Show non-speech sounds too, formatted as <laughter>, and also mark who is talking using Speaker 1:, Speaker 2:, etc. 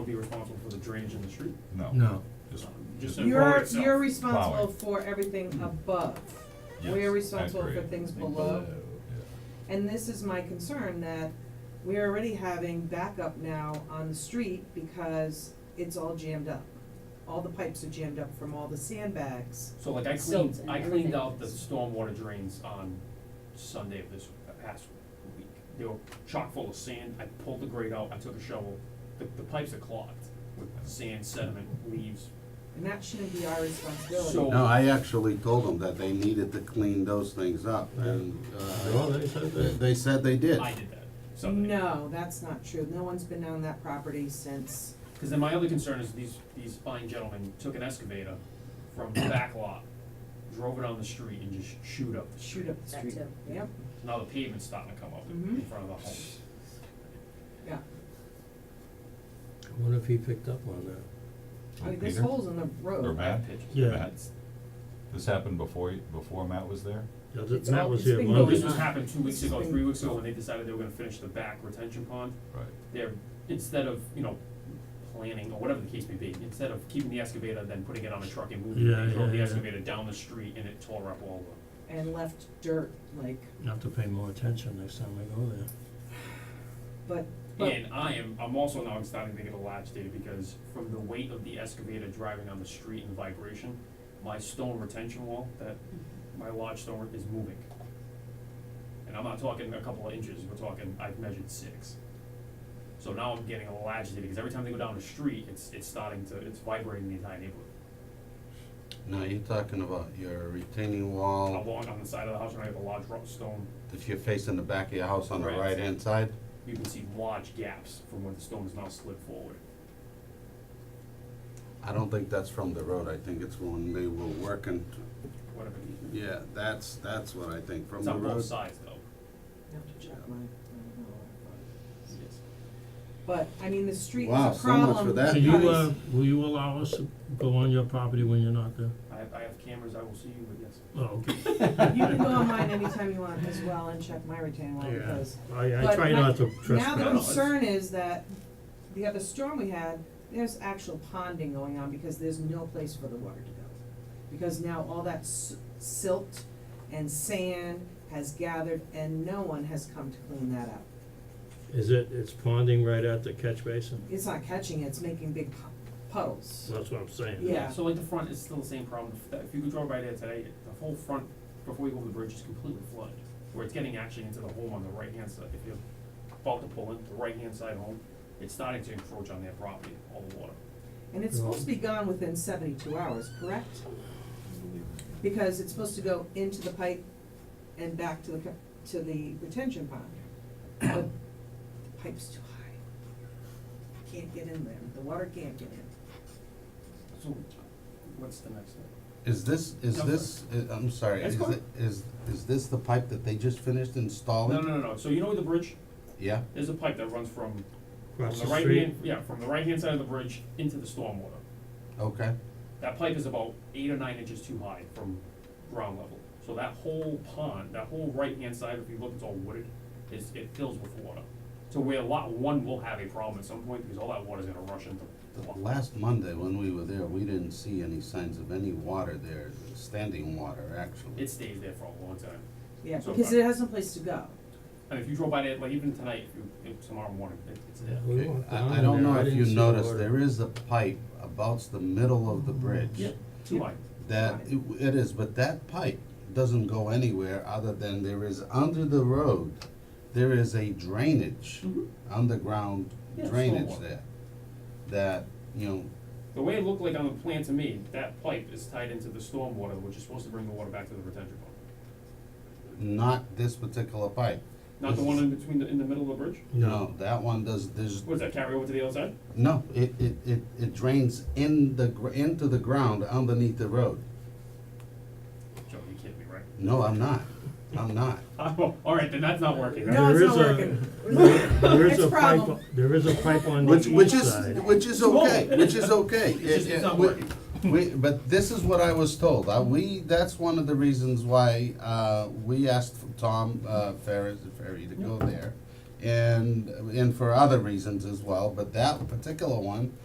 Speaker 1: responsible for the drainage in the street? Um,
Speaker 2: No.
Speaker 3: No.
Speaker 2: Just-
Speaker 1: Just
Speaker 2: just-
Speaker 1: in- road
Speaker 4: You're,
Speaker 1: itself.
Speaker 4: you're responsible
Speaker 2: Plowing. Mm-hmm.
Speaker 4: for everything above.
Speaker 2: yes,
Speaker 4: We
Speaker 2: I
Speaker 4: are responsible for
Speaker 2: agree.
Speaker 4: things
Speaker 2: Think
Speaker 4: below.
Speaker 2: yeah.
Speaker 4: And this is my concern that we're already having backup now on the street because it's all jammed up. All the pipes are jammed up from all the sandbags.
Speaker 1: So like I
Speaker 5: Silt
Speaker 1: cleaned,
Speaker 5: and
Speaker 1: I cleaned
Speaker 5: everything.
Speaker 1: out the stormwater drains on Sunday of this past week. They were chock full of sand, I pulled the grate out, I took a shovel, the, the pipes are clogged with sand, sediment, leaves.
Speaker 4: And that shouldn't be our responsibility.
Speaker 1: So-
Speaker 6: No, I actually told them that they needed to clean those things up, and,
Speaker 3: Well,
Speaker 6: uh,
Speaker 3: they said
Speaker 6: they
Speaker 3: that.
Speaker 6: they said they did.
Speaker 1: I did that Sunday.
Speaker 4: No, that's not true. No one's been on that property since,
Speaker 1: Cause then my other concern is these, these fine gentlemen took an excavator from the back lot, drove it on the street and just shoot up the street.
Speaker 4: shoot up the
Speaker 5: That
Speaker 4: street.
Speaker 5: too, yeah.
Speaker 4: Yep,
Speaker 1: Now the pavement's starting to come up in
Speaker 4: Mhm.
Speaker 1: front of the home.
Speaker 4: yeah.
Speaker 3: I wonder if he picked up on that.
Speaker 2: Oh,
Speaker 4: I mean, there's
Speaker 2: Peter?
Speaker 4: holes in the road.
Speaker 2: Or Matt?
Speaker 1: pitches.
Speaker 3: Yeah.
Speaker 2: Matt's- This happened before, you- before Matt was there?
Speaker 3: Yeah,
Speaker 4: It's
Speaker 3: th- Matt
Speaker 4: all-
Speaker 3: was
Speaker 4: it's
Speaker 3: here
Speaker 4: been
Speaker 1: No,
Speaker 3: Monday
Speaker 1: this
Speaker 4: going
Speaker 1: was
Speaker 3: night.
Speaker 4: on.
Speaker 1: happened two weeks ago,
Speaker 4: It's been-
Speaker 1: three weeks ago, when they decided they were gonna finish the back retention pond.
Speaker 2: Right.
Speaker 1: They're, instead of, you know, planning, or whatever the case may be, instead of keeping the excavator, then putting it on a truck and moving
Speaker 3: Yeah,
Speaker 1: it, they drove
Speaker 3: yeah,
Speaker 1: the
Speaker 3: yeah.
Speaker 1: excavator down the street and it tore up all the.
Speaker 4: And left dirt, like,
Speaker 3: Have to pay more attention next time I go there.
Speaker 4: but, but
Speaker 1: And I am, I'm also now starting to get a latch data, because from the weight of the excavator driving on the street and vibration, my stone retention wall, that, my large stone is moving. And I'm not talking a couple of inches, we're talking, I've measured six. So now I'm getting a little agitated, because every time they go down the street, it's, it's starting to, it's vibrating the entire neighborhood.
Speaker 6: No, you're talking about your retaining
Speaker 1: I'm
Speaker 6: wall,
Speaker 1: walking on the side of the house, and I have a large rock stone,
Speaker 6: if you're facing the back of your house on the
Speaker 1: Right.
Speaker 6: right-hand side,
Speaker 1: you can see large gaps from where the stone is now slid forward.
Speaker 6: I don't think that's from the road, I think it's when they were working,
Speaker 1: Whatever it is.
Speaker 6: yeah, that's, that's what I think, from
Speaker 1: It's
Speaker 6: the
Speaker 1: on both
Speaker 6: road.
Speaker 1: sides, though.
Speaker 4: I have to check my, I don't know. But, I mean, the street is
Speaker 6: Wow,
Speaker 4: a
Speaker 6: so much for
Speaker 4: problem.
Speaker 6: that.
Speaker 3: So you,
Speaker 4: because-
Speaker 3: uh, will you allow us to go on your property when you're not there?
Speaker 1: I have, I have cameras, I will see you, but yes.
Speaker 3: Oh,
Speaker 4: <laughs>
Speaker 3: okay.
Speaker 4: You can go on mine anytime you want as well and check my retaining wall
Speaker 3: Yeah,
Speaker 4: because.
Speaker 3: I, I
Speaker 4: but
Speaker 3: try
Speaker 4: my-
Speaker 3: not to
Speaker 4: Now the
Speaker 3: trespass.
Speaker 4: concern is that the other storm we had, there's actual ponding going on because there's no place for the water to go. Because now all that s- silt and sand has gathered and no one has come to clean that up.
Speaker 3: Is it, it's ponding right at the catch basin?
Speaker 4: It's not catching, it, it's making big pu- puddles.
Speaker 3: That's what I'm saying.
Speaker 4: Yeah.
Speaker 1: So like the front is still the same problem, If that- if you could drive by there today, the whole front, before you go over the bridge, is completely flooded. Where it's getting actually into the home on the right hand side, if you're about to pull in, the right hand side home, it's starting to encroach on their property, all the water.
Speaker 4: And it's supposed to be gone within seventy-two hours, correct? Because it's supposed to go into the pipe and back to the, co- to the retention pond. But the pipe's too high. Can't get in there, the water can't get in.
Speaker 1: So, what's the next step?
Speaker 6: Is this, is
Speaker 1: No,
Speaker 6: this, i- I'm sorry,
Speaker 1: That's
Speaker 6: is
Speaker 1: cool.
Speaker 6: it, is, is this the pipe that they just finished
Speaker 3: Oh,
Speaker 6: installing?
Speaker 1: No, no, no, no, so you know the bridge,
Speaker 6: Yeah,
Speaker 1: there's a pipe that runs from, from
Speaker 3: Across
Speaker 1: the
Speaker 3: the
Speaker 1: right
Speaker 3: street,
Speaker 1: hand, yeah, from the right hand side of the bridge into the stormwater.
Speaker 6: okay,
Speaker 1: That pipe is about eight or nine inches too high from ground level. So that whole pond, that whole right-hand side, if you look, it's all wooded, is, it fills with water. So where lot one will have a problem at some point, because all that water's gonna rush into the
Speaker 6: The
Speaker 1: lot.
Speaker 6: Last Monday, when we were there, we didn't see any signs of any water there, standing water, actually.
Speaker 1: It stays there for a long time.
Speaker 4: Yeah,
Speaker 1: So
Speaker 4: because
Speaker 1: far.
Speaker 4: it has no place to go.
Speaker 1: And if you drove by there, like even tonight, if you, if tomorrow morning, it, it's there.
Speaker 3: We walked
Speaker 6: I-
Speaker 3: down
Speaker 6: I don't
Speaker 3: there,
Speaker 6: know
Speaker 3: I
Speaker 6: if
Speaker 3: didn't
Speaker 6: you
Speaker 3: see
Speaker 6: noticed,
Speaker 3: water.
Speaker 6: there is a pipe about the middle of the bridge.
Speaker 1: Yep, too high.
Speaker 6: That, it it is, but that pipe doesn't go anywhere other than there is, under the road, there is a drainage,
Speaker 1: Mhm.
Speaker 6: underground
Speaker 1: Yeah,
Speaker 6: drainage
Speaker 1: stormwater.
Speaker 6: there. That, you know,
Speaker 1: The way it looked like on the plan to me, that pipe is tied into the stormwater, which is supposed to bring the water back to the retention pond.
Speaker 6: not this particular pipe.
Speaker 1: Not the one in between, the in the middle of the bridge?
Speaker 3: No,
Speaker 6: That one does, there's,
Speaker 1: What does that carry over to the other side?
Speaker 6: No, it, it, it, it drains in the, gr- into the ground underneath the road.
Speaker 1: Joe, you kidding me, right?
Speaker 6: No, I'm not, I'm not.
Speaker 1: <laughs> Oh, all right, then that's not working.
Speaker 4: No, it's
Speaker 3: There
Speaker 4: not
Speaker 3: is a-
Speaker 4: working.
Speaker 3: <laughs> There is
Speaker 4: It's
Speaker 3: a pipe,
Speaker 4: problem.
Speaker 3: there is a pipe on the
Speaker 6: Which, which
Speaker 3: east
Speaker 6: is,
Speaker 3: side.
Speaker 6: which is
Speaker 1: Whoa.
Speaker 6: okay, which is okay.
Speaker 1: It's just-
Speaker 6: It-
Speaker 1: it's
Speaker 6: it-
Speaker 1: not
Speaker 6: we-
Speaker 1: working.
Speaker 6: We, but this is what I was told, I, we, that's one of the reasons why, uh, we asked Tom, uh, Ferris, Ferry to go there. And, and for other reasons as well, but that particular one,